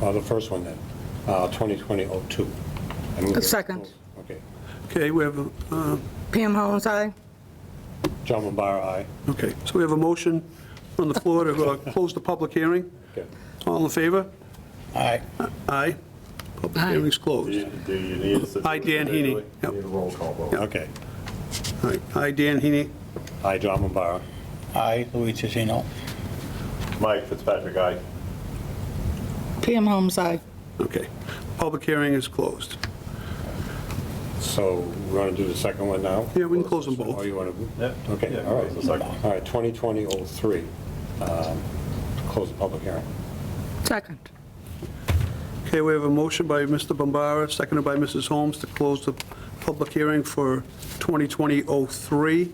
Uh, The first one then, uh, 2020-02. I move- Second. Okay. Okay, we have, a uh, Pam Holmes, aye. John Mombara, aye. okay, so we have a motion on the floor to uh, close the public hearing. Okay. All in favor? Aye. Aye. Public Aye. hearing's closed. Do you need? us to do Aye, it Dan Heaney. individually? Yep. Need a roll call vote. Okay. All right. Aye, Dan Heaney. Aye, John Mombara. Aye, Louis Tiziano. Mike Fitzpatrick, aye. Pam Holmes, aye. Okay, public hearing is closed. So we want to do the second one now? Yeah, we can close them both. Oh, you want to? Yep. Okay, Yeah, all right. close the second one. All right, 2020-03, um, close the public hearing. Second. Okay, we have a motion by Mr. Bombara, seconded by Mrs. Holmes, to close the public hearing for 2020-03.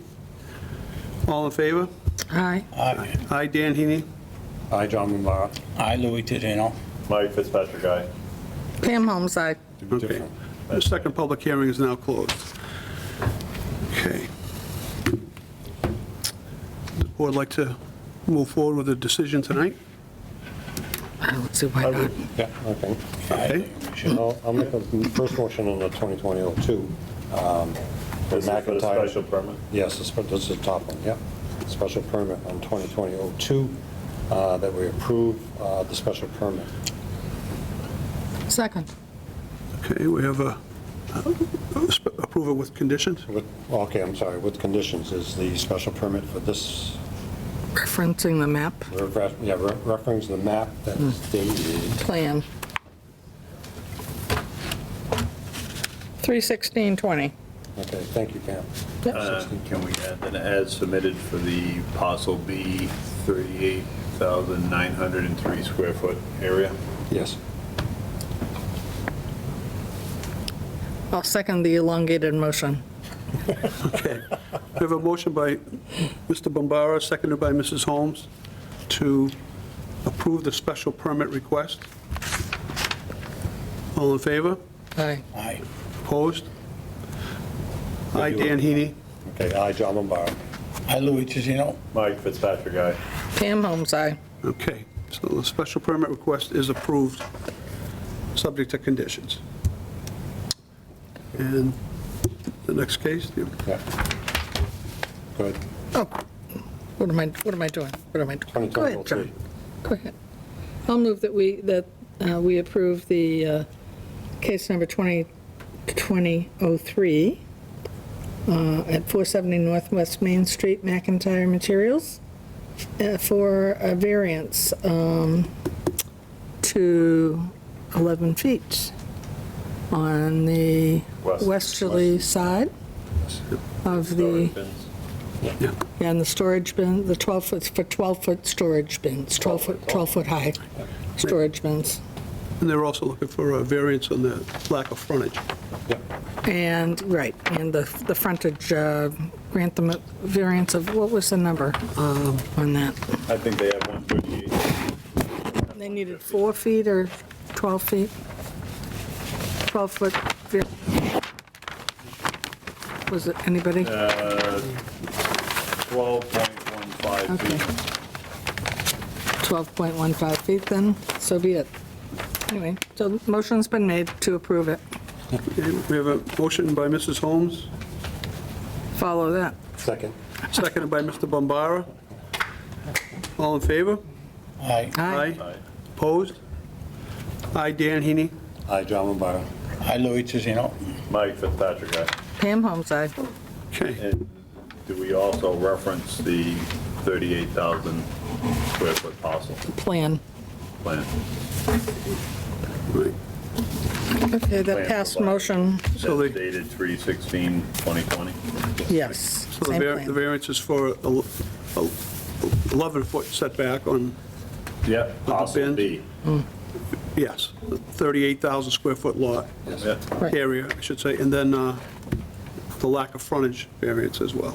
All in favor? Aye. Aye, Aye, Dan Heaney. Aye, John Mombara. Aye, Louis Tiziano. Mike Fitzpatrick, aye. Pam Holmes, aye. It'd be Okay. different. The second public hearing is now closed. Okay. Does the board like to move forward with a decision tonight? I don't see why not. Yeah, okay. Okay. I'll I'll make a first motion on the 2020-02. um, for This is for the McIntyre. special permit. Yes, this this is the top one, yep. Special permit on 2020-02, uh, that we approve uh, the special permit. Second. Okay, we have a, approval with conditions? With- Okay, I'm sorry, with conditions is the special permit for this, Referencing the map we're ref- yeah, re- reference the map that's dated, plan. 31620. okay, thank you, Pam. Uh, Yep. Can we add an ad submitted for the parcel B, 38,903 square foot area? Yes, I'll second the elongated motion. Okay. We have a motion by Mr. Bombara, seconded by Mrs. Holmes, to approve the special permit request. All in favor? Aye. Aye, Opposed? Aye, Dan Heaney. okay, aye, John Lombardo. Aye, Louis Tiziano. Mike Fitzpatrick, aye. Pam Holmes, aye. Okay, so the special permit request is approved, subject to conditions. And the next case, the- Yeah. Go ahead. Oh, what am I, what am I doing? What am I doing? Go ahead, John. 2020-02. Go ahead. I'll move that we, that uh, we approve the uh, case number 2020-03 uh, at 470 Northwest Main Street, McIntyre Materials, uh, for a variance um, to 11 feet on the West. westerly side of the, Sorry, Vince. yeah, yeah, and the storage bin, the 12-foot, for 12-foot storage bins, 12-foot, 12-foot high storage bins. and they're also looking for a variance on the lack of frontage. Yeah, And, right, and the, the frontage, uh, grant them a variance of, what was the number um, on that? I think they have 138. They needed four feet or 12 feet? 12-foot, was it anybody? Uh. 12.15 Okay. feet. 12.15 feet then, so be it. Anyway, so motion's been made to approve it. Okay, We have a motion by Mrs. Holmes, Follow that. second. seconded by Mr. Bombara. All in favor? Aye, Aye. Opposed? Aye, Dan Heaney. Aye, John Lombardo. Aye, Louis Tiziano. Mike Fitzpatrick, aye. Pam Holmes, aye. Okay, And do we also reference the 38,000 square foot parcel Plan. plan? right. Okay, that Plan passed provided. motion, So That's the- dated 3/16/2020? yes. so the same var- plan. the variance is for a l- a l- 11-foot setback on, Yeah, parcel bins? B. yes, 38,000 square foot lot. Yeah. Right. area, I should say, and then uh, the lack of frontage variance as well.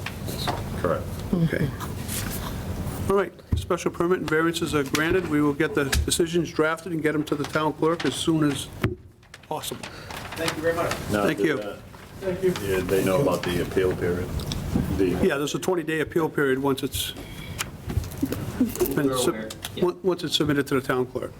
Correct. Okay. All right, special permit and variances are granted. We will get the decisions drafted and get them to the town clerk as soon as possible. Now, Thank did you. that- Yeah, They know about the appeal period. The- Yeah, there's a 20-day appeal period once it's, been sub- on- once it's submitted to the town clerk.